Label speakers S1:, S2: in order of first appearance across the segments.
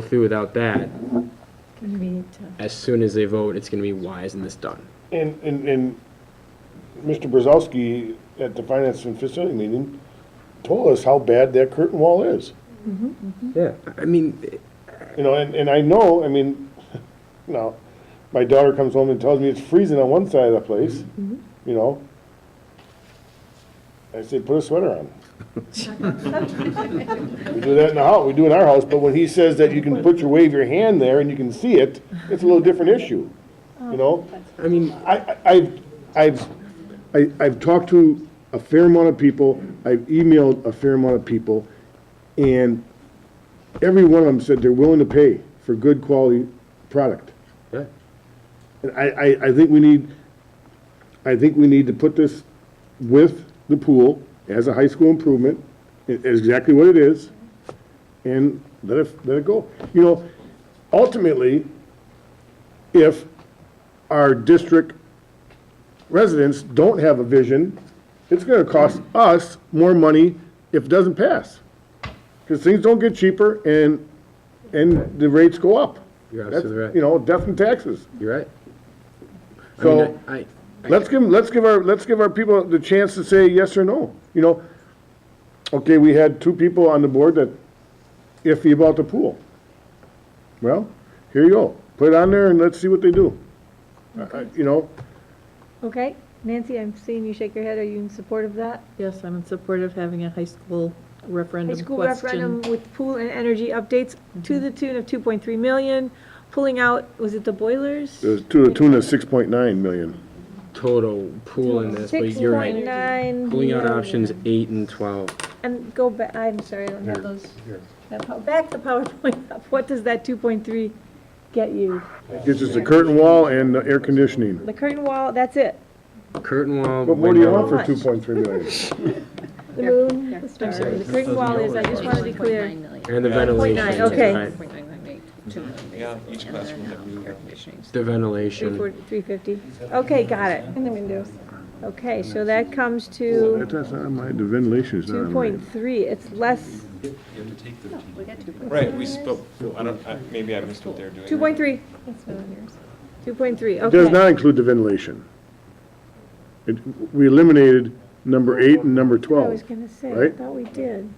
S1: go through without that,
S2: When we need to.
S1: as soon as they vote, it's gonna be, why isn't this done?
S3: And, and, and Mr. Brzezowski at the Finance and Facility meeting told us how bad that curtain wall is.
S1: Yeah. I mean,
S3: You know, and, and I know, I mean, you know, my daughter comes home and tells me it's freezing on one side of the place, you know. I say, put a sweater on. We do that in the house, we do it in our house, but when he says that you can put your, wave your hand there and you can see it, it's a little different issue, you know?
S1: I mean,
S3: I, I- I've, I've, I- I've talked to a fair amount of people, I've emailed a fair amount of people, and every one of them said they're willing to pay for good quality product.
S1: yeah.
S3: And I, I, I think we need, I think we need to put this with the pool as a high school improvement, i- is exactly what it is, and let it, let it go. You know, ultimately, if our district residents don't have a vision, it's gonna cost us more money if it doesn't pass. Because things don't get cheaper and, and the rates go up.
S1: You're
S3: That's-
S1: absolutely right.
S3: You know, death and taxes.
S1: you're right. I mean,
S3: So,
S1: I, I-
S3: let's give, let's give our, let's give our people the chance to say yes or no, you know? Okay, we had two people on the board that iffy about the pool. Well, here you go, put it on there and let's see what they do. I- I- You know,
S2: Okay, Nancy, I'm seeing you shake your head. Are you in support of that?
S4: Yes, I'm in support of having a high school
S2: High
S4: referendum
S2: school referendum
S4: question.
S2: with pool and energy updates to the tune of two point three million, pulling out, was it the boilers?
S3: to the tune of six point nine million.
S1: total pool in this, but
S2: Six
S1: you're
S2: point
S1: right.
S2: nine.
S1: Pulling out options eight and twelve.
S2: And go back, I'm sorry, I don't have those. That pow- Back the PowerPoint up. What does that two point three get you?
S3: It's just the curtain wall and the air conditioning.
S2: The curtain wall, that's it.
S1: Curtain wall.
S3: What more do you
S1: window.
S3: want for two point three million?
S2: The moon, the stars. The curtain wall is, I just wanted to be clear.
S1: And the ventilation.
S2: nine, okay.
S1: right.
S5: Yeah, each classroom that we have.
S1: The
S2: Three
S1: ventilation.
S2: forty, three fifty. Okay, got it. And the windows. Okay, so that comes to
S3: That's not my, the ventilation is not
S2: two
S3: on mine.
S2: point three. It's less,
S5: Right, we spoke, I don't, I- maybe I missed what they're doing.
S2: two point three. Two point three,
S3: It does
S2: okay.
S3: not include the ventilation. It, we eliminated number eight and number
S2: I was
S3: twelve,
S2: gonna say, I
S3: right?
S2: thought we did.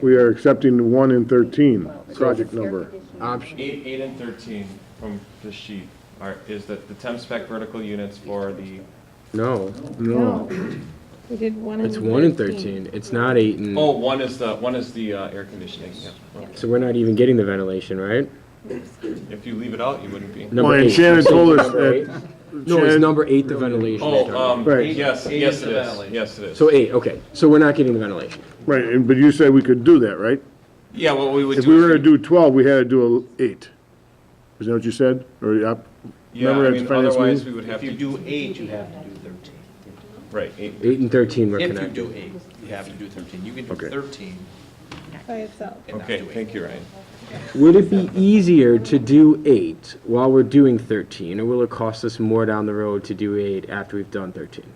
S3: We are accepting one and thirteen, project number.
S1: Option,
S5: Eight, eight and thirteen from the sheet are, is that the temp spec vertical units for the,
S1: no,
S3: No.
S2: We did one
S1: it's one and thirteen. It's not eight and,
S5: oh, one is the, one is the uh, air conditioning, yeah. Okay.
S1: so we're not even getting the ventilation, right?
S5: If you leave it out, you wouldn't be.
S1: Number
S3: Well, and
S1: eight.
S3: Shannon told us
S1: Number eight?
S3: that,
S1: No, it's
S3: Shannon-
S1: number eight, the ventilation. you're
S5: Oh,
S1: talking about.
S5: um,
S3: Right.
S5: yes, yes it is, yes it is.
S1: So eight, okay. So we're not getting the ventilation.
S3: right, and, but you said we could do that, right?
S5: Yeah, what we would do.
S3: If we were to
S5: is
S3: do twelve, we had to do a eight. Is that what you said? Or, the op-
S5: Yeah,
S3: remember
S5: I
S3: at the
S5: mean,
S3: finance
S5: otherwise,
S3: meeting?
S5: we would have
S6: If you
S5: to,
S6: do eight, you have to do thirteen.
S5: right, eight,
S1: Eight and thirteen were
S6: If you
S1: connected.
S6: do eight, you have to do thirteen. You can do
S3: Okay.
S6: thirteen
S2: By itself.
S6: and not do eight.
S5: okay, thank you, Ryan.
S1: Would it be easier to do eight while we're doing thirteen, or will it cost us more down the road to do eight after we've done thirteen?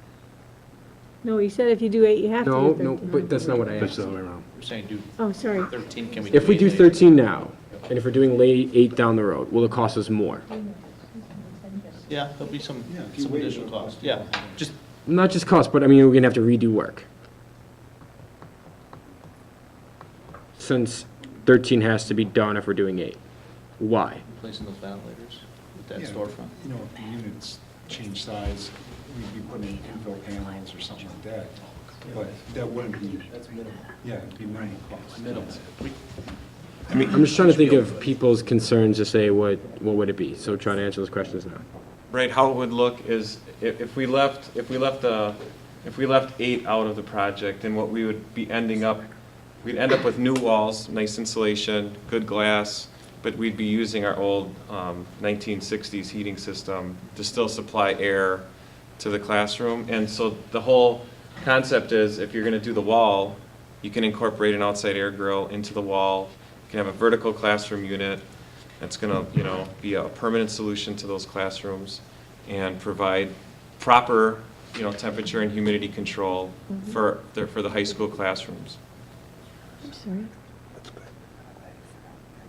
S2: No, you said if you do eight, you have to
S1: No,
S2: do
S1: no,
S2: thirteen.
S1: but that's not what I asked.
S6: You're saying do
S2: Oh, sorry.
S6: thirteen, can we do eight?
S1: If we do
S6: later?
S1: thirteen now, and if we're doing late eight down the road, will it cost us more?
S6: Yeah, there'll be some, some additional cost, yeah. Just,
S1: Not just cost, but I mean, we're gonna have to redo work. Since thirteen has to be done if we're doing eight. Why?
S6: placing those ventilators with that
S7: Yeah,
S6: storefront.
S7: You know, if the units change size, we'd be putting in infill panels or something like that, but that wouldn't be. That's minimal. Yeah, it'd be minimal cost. Minimal.
S1: I'm just trying to think of people's concerns to say, what, what would it be? So try to answer those questions now.
S5: Right, how it would look is, if, if we left, if we left, uh, if we left eight out of the project, then what we would be ending up, we'd end up with new walls, nice insulation, good glass, but we'd be using our old, um, nineteen sixties heating system to still supply air to the classroom. And so the whole concept is, if you're gonna do the wall, you can incorporate an outside air grill into the wall. You can have a vertical classroom unit, that's going to, you know, be a permanent solution to those classrooms and provide proper, you know, temperature and humidity control for, the- for the high school classrooms.
S2: I'm sorry.